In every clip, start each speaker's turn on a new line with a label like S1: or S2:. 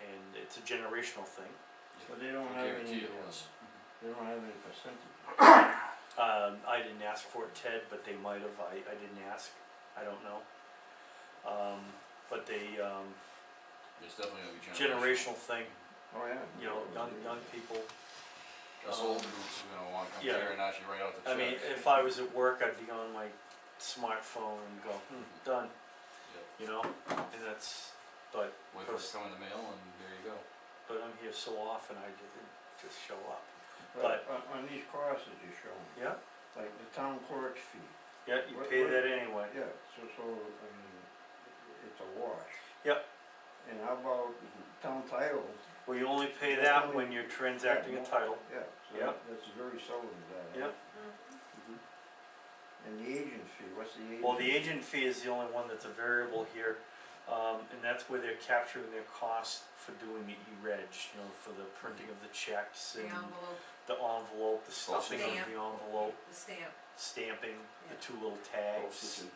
S1: and it's a generational thing.
S2: But they don't
S3: I
S2: have
S3: guarantee
S2: any,
S3: it
S2: uh,
S3: was.
S2: they don't have any percentage.
S1: Um, I didn't ask for it, Ted, but they might have, I, I didn't ask, I don't know. Um, but they, um,
S3: It's definitely gonna be
S1: generational
S3: generational.
S1: thing,
S2: Oh, yeah.
S1: you know, young, young people.
S3: Us old dudes are gonna wanna come
S1: Yeah.
S3: here and actually write out the
S1: I
S3: check.
S1: mean, if I was at work, I'd be on my smartphone and go, hmm, done,
S3: Yep,
S1: you know, and that's, but,
S3: Wait for it to come in the mail and there you go.
S1: but I'm here so often, I didn't just show up.
S2: But on, on these crosses you show me,
S1: Yeah,
S2: like the town clerk's fee,
S1: yeah, you
S2: What-
S1: pay
S2: what-
S1: that anyway.
S2: yeah, so, so, I mean, it's a wash.
S1: Yep.
S2: And how about town title,
S1: Well, you only pay
S2: That's
S1: that
S2: only-
S1: when you're transacting a
S2: Yeah.
S1: title.
S2: yeah, so
S1: Yep.
S2: that- that's very seldom that.
S1: Yep.
S2: And the agent fee, what's the agent?
S1: Well, the agent fee is the only one that's a variable here, um, and that's where they're capturing their cost for doing the E-reg, you know, for the printing of the checks
S4: The
S1: and
S4: envelope,
S1: the envelope, the stuffing of
S4: Stamp.
S1: the envelope,
S4: the stamp,
S1: stamping, the
S4: Yeah.
S1: two little tags.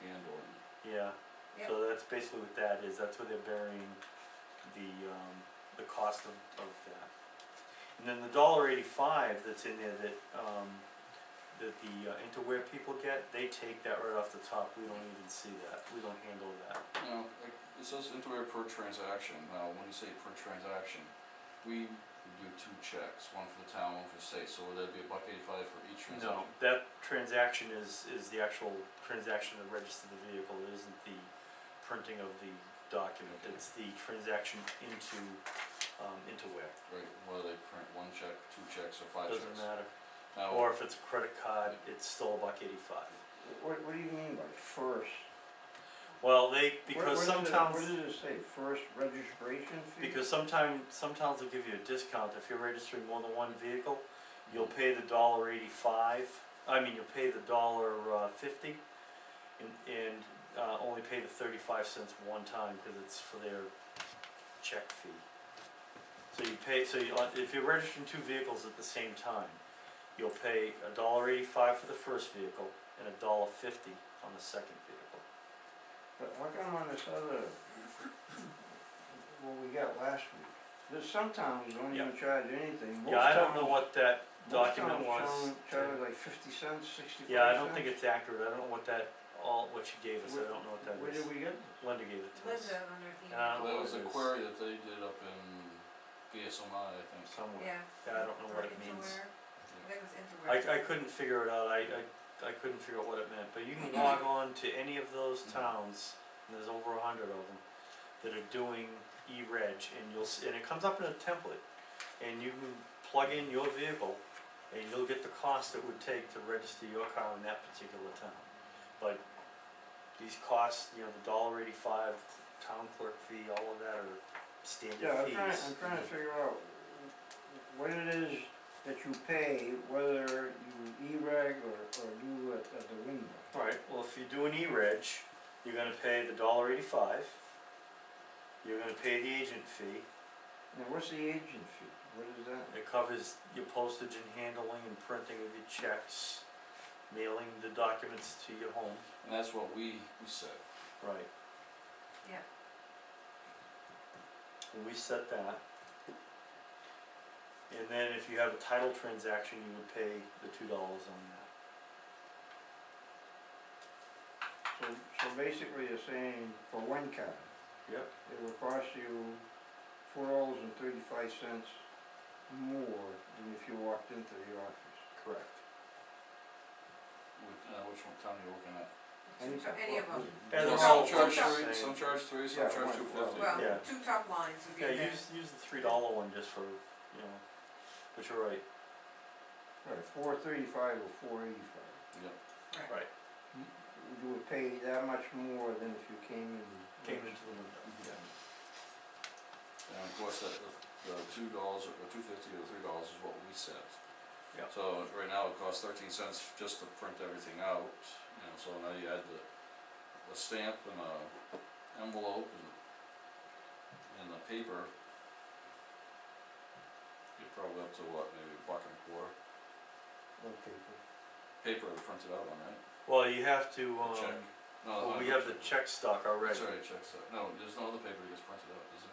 S1: Yeah,
S4: Yep.
S1: so that's basically what that is, that's where they're burying the, um, the cost of, of that. And then the dollar eighty-five that's in there that, um, that the uh, interware people get, they take that right off the top, we don't even see that, we don't handle that.
S3: You know, like, it says interware per transaction, now, when you say per transaction, we do two checks, one for the town, one for the state, so would that be a buck eighty-five for each
S1: No,
S3: transaction?
S1: that transaction is, is the actual transaction to register the vehicle, it isn't the printing of the document,
S3: Okay.
S1: it's the transaction into, um, into where,
S3: Right, whether they print one check, two checks, or five
S1: doesn't
S3: checks.
S1: matter.
S3: Now,
S1: Or if it's a credit card, it's still a buck eighty-five.
S2: What, what do you mean by first?
S1: Well, they,
S2: Where-
S1: because
S2: where
S1: some
S2: does it-
S1: towns,
S2: Where does it say, first registration fee?
S1: because sometime, some towns will give you a discount, if you're registering more than one vehicle, you'll pay the dollar eighty-five, I mean, you'll pay the dollar uh, fifty, and, and, uh, only pay the thirty-five cents one time, cause it's for their check fee. So you pay, so you, uh, if you're registering two vehicles at the same time, you'll pay a dollar eighty-five for the first vehicle, and a dollar fifty on the second vehicle.
S2: But how come on this other, what we got last week, there's some towns don't even charge anything, most
S1: Yeah, I don't
S2: towns,
S1: know what that
S2: most
S1: document
S2: towns
S1: was.
S2: charge- charge like fifty cents, sixty-five cents.
S1: Yeah, I don't think it's accurate, I don't know what that, all, what she gave us, I
S2: Where-
S1: don't know what that
S2: Where
S1: is,
S2: did we get this?
S1: Linda gave it to us,
S4: Linda on her
S1: Yeah.
S3: Well,
S4: email,
S3: That was a
S1: Orders.
S3: query that they did up in BSMI, I think.
S1: somewhere.
S4: yeah.
S1: Yeah, I don't know what it
S4: Or
S1: means.
S4: interware. I think it was
S1: I,
S4: interware.
S1: I couldn't figure it out, I, I, I couldn't figure out what it meant, but you can
S2: Mm-hmm.
S1: log on to any of those towns, and there's over a hundred of them, that are doing E-reg, and you'll, s- and it comes up in a template, and you can plug in your vehicle, and you'll get the cost it would take to register your car in that particular town. But these costs, you know, the dollar eighty-five, town clerk fee, all of that are
S2: Yeah,
S1: standard
S2: I'm
S1: fees.
S2: trying, I'm trying to figure out what it is that you pay, whether you E-reg or, or do it at the window.
S1: Alright, well, if you do an E-reg, you're gonna pay the dollar eighty-five, you're gonna pay the agent fee,
S2: Now, what's the agent fee, what is that?
S1: it covers your postage and handling and printing of your checks, mailing the documents to your home.
S3: And that's what we, we said.
S1: Right.
S4: Yeah.
S1: And we set that. And then if you have a title transaction, you would pay the two dollars on that.
S2: So, so basically you're saying for one car.
S1: Yep.
S2: It will cost you four dollars and thirty-five cents more than if you walked into the office.
S1: Correct.
S3: Which, uh, which one, town you working at?
S4: Two top- Any of them,
S1: And
S4: they're
S3: Some
S4: all
S3: charge
S4: the
S3: three,
S1: same.
S3: Some charge three, some
S2: Yeah,
S3: charge
S2: one-
S3: two
S2: well,
S3: fifty.
S1: Yeah.
S4: well, two top lines would be
S1: Yeah,
S4: there,
S1: use, use the three dollar one just for, you know, but you're right,
S2: Right, four thirty-five or four eighty-five.
S3: Yep.
S4: right,
S1: right,
S2: You would pay that much more than if you came in.
S1: came into the window.
S3: And of course, that, the two dollars, or two fifty or three dollars is what we set.
S1: Yeah.
S3: So right now, it costs thirteen cents just to print everything out, you know, so now you add the, the stamp and a envelope and, and the paper. You're probably up to what, maybe a buck and a quarter,
S2: Okay,
S3: paper to print it out on, right?
S1: Well, you have to,
S3: The
S1: um,
S3: check. No,
S1: well,
S3: not
S1: we
S3: the
S1: have the check
S3: check.
S1: stock already.
S3: Sorry, checks, out. no, there's no other paper that gets printed out, there's